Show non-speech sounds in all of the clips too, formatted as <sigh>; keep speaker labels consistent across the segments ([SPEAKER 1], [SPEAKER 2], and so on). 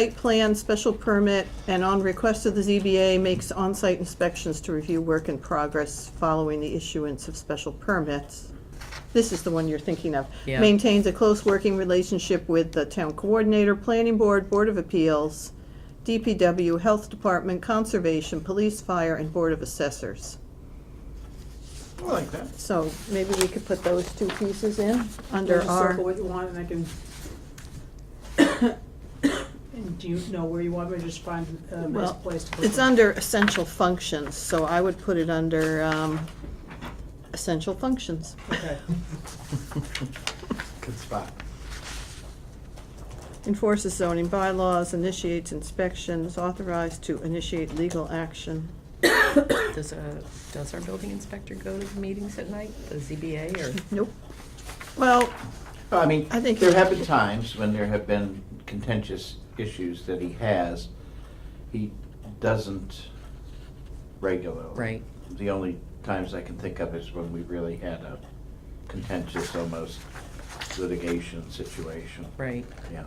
[SPEAKER 1] Site plan, special permit, and on request of the ZBA makes on-site inspections to review work in progress following the issuance of special permits. This is the one you're thinking of.
[SPEAKER 2] Yeah.
[SPEAKER 1] Maintains a close working relationship with the town coordinator, planning board, board of appeals, DPW, health department, conservation, police, fire, and board of assessors.
[SPEAKER 3] I like that.
[SPEAKER 1] So maybe we could put those two pieces in under
[SPEAKER 4] Just
[SPEAKER 1] our.
[SPEAKER 4] circle what you want and I can. <coughs> And do you know where you want me to just find a nice
[SPEAKER 1] Well,
[SPEAKER 4] place to put
[SPEAKER 1] It's
[SPEAKER 4] them?
[SPEAKER 1] under essential functions, so I would put it under um, essential functions. <laughs>
[SPEAKER 4] Okay,
[SPEAKER 3] Good spot.
[SPEAKER 1] Enforces zoning bylaws, initiates inspections, authorized to initiate legal action.
[SPEAKER 2] Does, uh, does our building inspector go to the meetings at night, the ZBA, or?
[SPEAKER 1] Nope. Well,
[SPEAKER 3] I mean,
[SPEAKER 1] I think-
[SPEAKER 3] there have been times when there have been contentious issues that he has. He doesn't regularly.
[SPEAKER 2] Right.
[SPEAKER 3] The only times I can think of is when we really had a contentious, almost litigation situation.
[SPEAKER 2] <laughs> Right.
[SPEAKER 3] Yeah.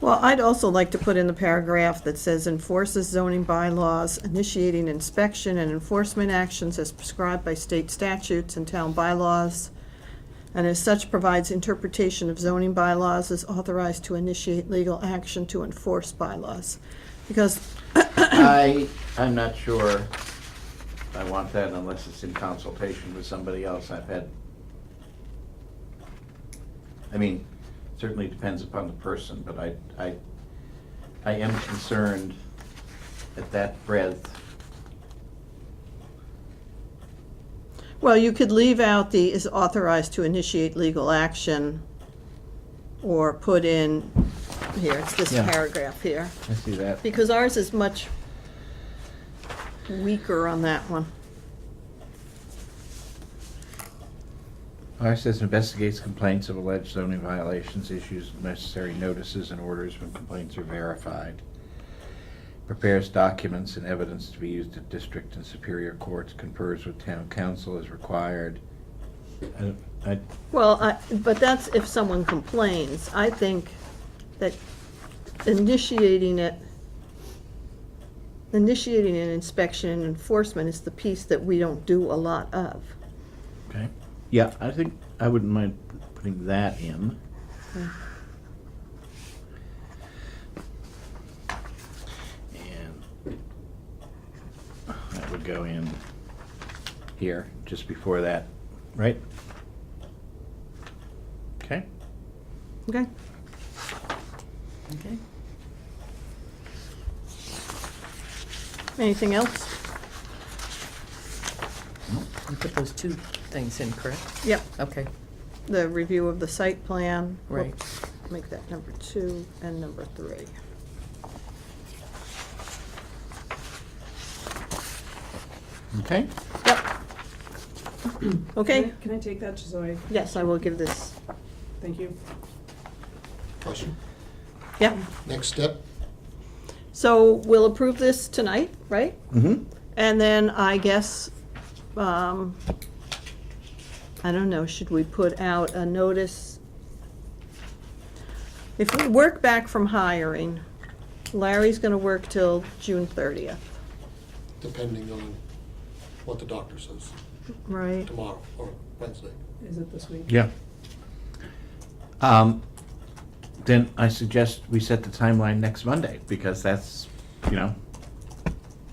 [SPEAKER 1] well, I'd also like to put in the paragraph that says enforces zoning bylaws, initiating inspection and enforcement actions as prescribed by state statutes and town bylaws, and as such provides interpretation of zoning bylaws is authorized to initiate legal action to enforce bylaws. Because
[SPEAKER 3] I, I'm not sure I want that unless it's in consultation with somebody else. I've had, I mean, certainly depends upon the person, but I, I, I am concerned at that breadth.
[SPEAKER 1] Well, you could leave out the is authorized to initiate legal action, or put in, here, it's this
[SPEAKER 3] Yeah.
[SPEAKER 1] paragraph here,
[SPEAKER 3] I see that.
[SPEAKER 1] because ours is much weaker on that one.
[SPEAKER 3] Ours says investigates complaints of alleged zoning violations, issues necessary notices and orders when complaints are verified. Prepares documents and evidence to be used at district and superior courts, confers with town council as required. I- I,
[SPEAKER 1] Well, I, but that's if someone complains. I think that initiating it, initiating an inspection and enforcement is the piece that we don't do a lot of.
[SPEAKER 3] okay, yeah, I think, I wouldn't mind putting that in. And that would go in here, just before that, right? Okay.
[SPEAKER 1] Okay?
[SPEAKER 2] Okay.
[SPEAKER 1] Anything else?
[SPEAKER 2] You put those two things in, correct?
[SPEAKER 1] Yep.
[SPEAKER 2] Okay,
[SPEAKER 1] the review of the site plan. We'll
[SPEAKER 2] Right.
[SPEAKER 1] Make that number two and number three.
[SPEAKER 3] Okay.
[SPEAKER 1] Yep. Okay,
[SPEAKER 4] Can I- Can I take that, just so I,
[SPEAKER 1] yes, I will give this,
[SPEAKER 4] thank you.
[SPEAKER 5] Question.
[SPEAKER 1] yeah.
[SPEAKER 5] Next step,
[SPEAKER 1] So we'll approve this tonight, right?
[SPEAKER 3] Mm-hmm.
[SPEAKER 1] And then I guess, um, I don't know, should we put out a notice? If we work back from hiring, Larry's gonna work till June thirtieth,
[SPEAKER 5] depending on what the doctor says
[SPEAKER 1] right?
[SPEAKER 5] tomorrow or Wednesday.
[SPEAKER 4] Is it this week?
[SPEAKER 3] Yeah. Um, then I suggest we set the timeline next Monday, because that's, you know,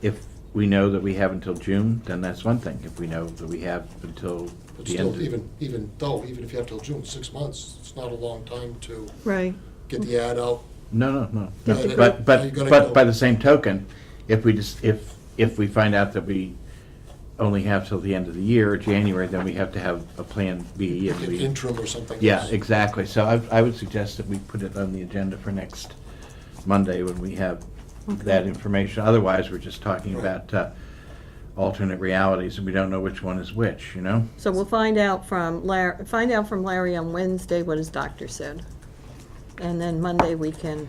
[SPEAKER 3] if we know that we have until June, then that's one thing. If we know that we have until
[SPEAKER 5] But
[SPEAKER 3] the end.
[SPEAKER 5] still,
[SPEAKER 3] of-
[SPEAKER 5] even, even though, even if you have till June, six months, it's not a long time to
[SPEAKER 1] Right.
[SPEAKER 5] get the ad out.
[SPEAKER 3] No, no, no, no.
[SPEAKER 5] Yeah, they-
[SPEAKER 3] But,
[SPEAKER 5] you
[SPEAKER 3] but,
[SPEAKER 5] gotta
[SPEAKER 3] but
[SPEAKER 5] go-
[SPEAKER 3] by the same token, if we just, if, if we find out that we only have till the end of the year, January, then we have to have a plan B and
[SPEAKER 5] Get
[SPEAKER 3] we.
[SPEAKER 5] interim or something.
[SPEAKER 3] Yeah,
[SPEAKER 5] else.
[SPEAKER 3] exactly. So I, I would suggest that we put it on the agenda for next Monday when we have that information. Otherwise, we're just talking
[SPEAKER 5] Right.
[SPEAKER 3] about uh, alternate realities and we don't know which one is which, you know?
[SPEAKER 1] So we'll find out from Larry, find out from Larry on Wednesday what his doctor said. And then Monday, we can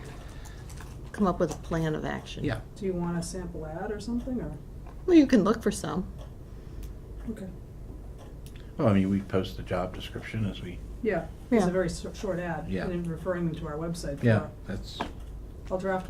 [SPEAKER 1] come up with a plan of action.
[SPEAKER 4] Do you want a sample ad or something, or?
[SPEAKER 1] Well, you can look for some.
[SPEAKER 4] Okay.
[SPEAKER 3] Well, I mean, we post the job description as we,
[SPEAKER 4] Yeah, it's
[SPEAKER 1] Yeah.
[SPEAKER 4] a very s- short ad,
[SPEAKER 3] Yeah.
[SPEAKER 4] and then referring them to our website.
[SPEAKER 3] yeah,
[SPEAKER 4] for-
[SPEAKER 3] that's,
[SPEAKER 4] I'll draft